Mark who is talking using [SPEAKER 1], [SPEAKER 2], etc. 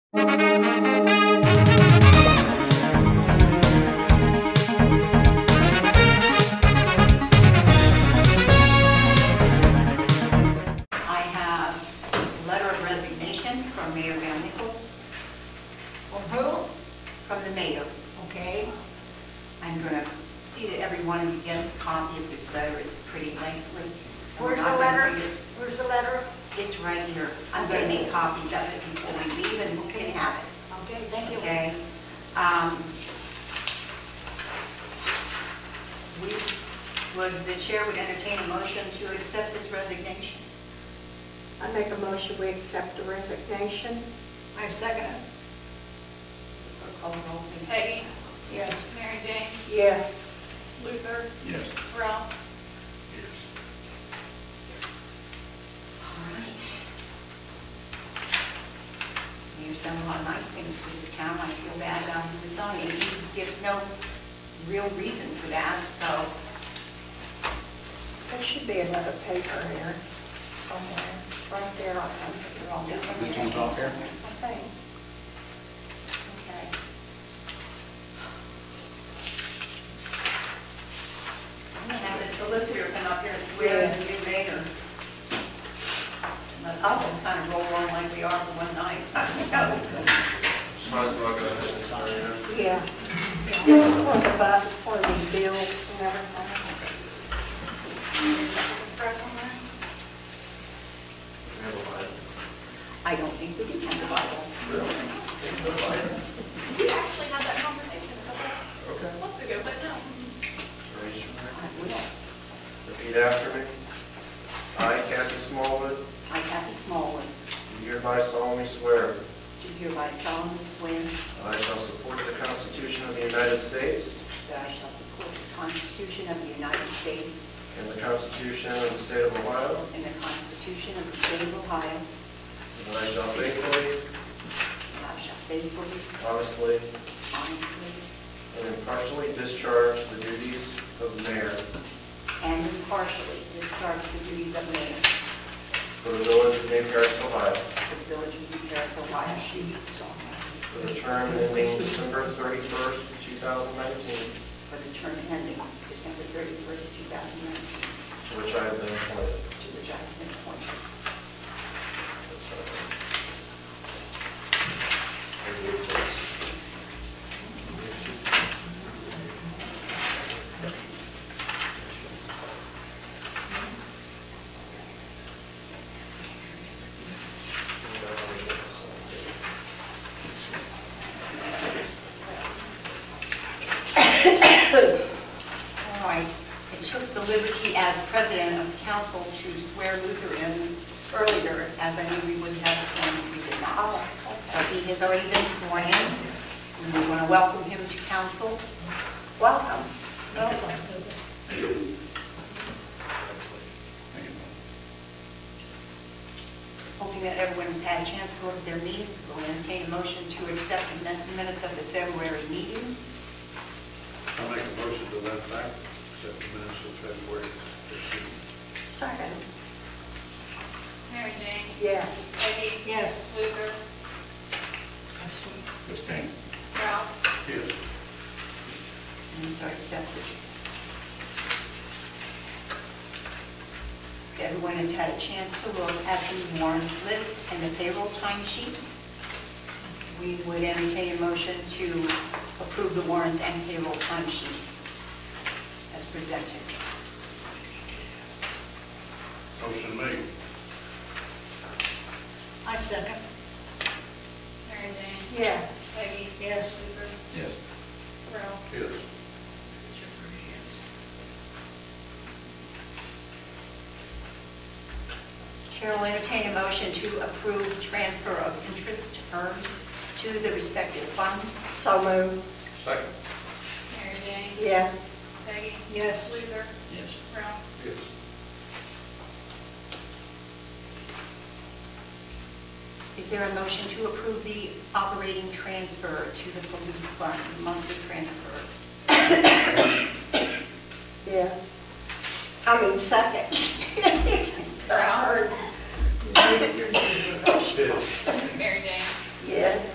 [SPEAKER 1] the mayor, okay? I'm gonna see that every one of you gets a copy of this letter, it's pretty lengthy. I'm
[SPEAKER 2] Where's
[SPEAKER 1] not
[SPEAKER 2] the
[SPEAKER 1] gonna
[SPEAKER 2] letter?
[SPEAKER 1] read it.
[SPEAKER 2] Where's the letter?
[SPEAKER 1] It's right here. I'm gonna make copies of it before we leave, and we can have it,
[SPEAKER 2] Okay, thank you.
[SPEAKER 1] okay? Um, We, would, the chair would entertain a motion to accept this resignation.
[SPEAKER 3] I make a motion, we accept the resignation.
[SPEAKER 2] I second it.
[SPEAKER 1] Call the roll, please.
[SPEAKER 4] Peggy,
[SPEAKER 2] Yes.
[SPEAKER 4] Mary Jane,
[SPEAKER 3] Yes.
[SPEAKER 4] Luther,
[SPEAKER 5] Yes.
[SPEAKER 4] Ralph,
[SPEAKER 1] All right. Mayor's done a lot of nice things for this town, I feel bad about him resigning, he gives no real reason for that, so,
[SPEAKER 3] There should be another paper here somewhere, right there on the wrong.
[SPEAKER 5] This one's off
[SPEAKER 3] I
[SPEAKER 5] here?
[SPEAKER 3] think.
[SPEAKER 1] okay. I'm gonna have the solicitor come up here and swear in the new mayor. Unless I'll just kind of roll on like we are for one night.
[SPEAKER 6] Might as well go ahead and sign it.
[SPEAKER 3] Yeah. This is for the, bu- for the bills and everything.
[SPEAKER 6] We have a line.
[SPEAKER 1] I don't think we can have the Bible.
[SPEAKER 4] we actually had that conversation a couple
[SPEAKER 6] Okay.
[SPEAKER 4] of months ago, but no.
[SPEAKER 6] Raise your hand.
[SPEAKER 1] I will.
[SPEAKER 6] Repeat after me. I, Kathy Smallwood,
[SPEAKER 1] I, Kathy Smallwood,
[SPEAKER 6] do hereby solemnly swear
[SPEAKER 1] do hereby solemnly swear
[SPEAKER 6] that I shall support the Constitution of the United States
[SPEAKER 1] that I shall support the Constitution of the United States
[SPEAKER 6] and the Constitution of the State of Ohio,
[SPEAKER 1] and the Constitution of the State of Ohio,
[SPEAKER 6] and that I shall faithfully,
[SPEAKER 1] and I shall faithfully,
[SPEAKER 6] honestly,
[SPEAKER 1] honestly,
[SPEAKER 6] and impartially discharge the duties of mayor
[SPEAKER 1] and impartially discharge the duties of mayor
[SPEAKER 6] for the village of New Paris, Ohio,
[SPEAKER 1] for the village of New Paris, Ohio,
[SPEAKER 6] for the term ending December 31st, 2019,
[SPEAKER 1] for the term ending December 31st, 2019,
[SPEAKER 6] to which I have been appointed.
[SPEAKER 1] to which I have been appointed. All right, it took the liberty as president of council to swear Luther in earlier, as I knew we would have sworn if we did not. So he has already been sworn in, and we want to welcome him to council. Welcome. Welcome. Hoping that everyone has had a chance to go to their meetings, we'll entertain a motion to accept the min- minutes of the February meeting.
[SPEAKER 7] I'll make a motion to that fact, except the minutes of February 15th.
[SPEAKER 3] Second.
[SPEAKER 4] Mary Jane,
[SPEAKER 3] Yes.
[SPEAKER 4] Peggy.
[SPEAKER 3] Yes.
[SPEAKER 4] Luther,
[SPEAKER 5] Abstain.
[SPEAKER 4] Ralph,
[SPEAKER 7] Yes.
[SPEAKER 1] Minutes are accepted. If Everyone has had a chance to look at the warrants list and the payroll time sheets. We would entertain a motion to approve the warrants and payroll time sheets as presented.
[SPEAKER 7] Motion made.
[SPEAKER 2] I second.
[SPEAKER 4] Mary Jane,
[SPEAKER 3] Yes.
[SPEAKER 4] Peggy.
[SPEAKER 2] Yes.
[SPEAKER 4] Luther,
[SPEAKER 5] Yes.
[SPEAKER 4] Ralph,
[SPEAKER 7] Yes.
[SPEAKER 1] Chair will entertain a motion to approve transfer of interest earned to the respective funds.
[SPEAKER 3] So moved.
[SPEAKER 7] Second.
[SPEAKER 4] Mary Jane,
[SPEAKER 3] Yes.
[SPEAKER 4] Peggy.
[SPEAKER 2] Yes.
[SPEAKER 4] Luther,
[SPEAKER 5] Yes.
[SPEAKER 4] Ralph,
[SPEAKER 7] Yes.
[SPEAKER 1] Is there a motion to approve the operating transfer to the police fund, monthly transfer?
[SPEAKER 3] Yes. I mean, second.
[SPEAKER 4] Ralph,
[SPEAKER 7] Yes.
[SPEAKER 4] Mary Jane.
[SPEAKER 3] Yes.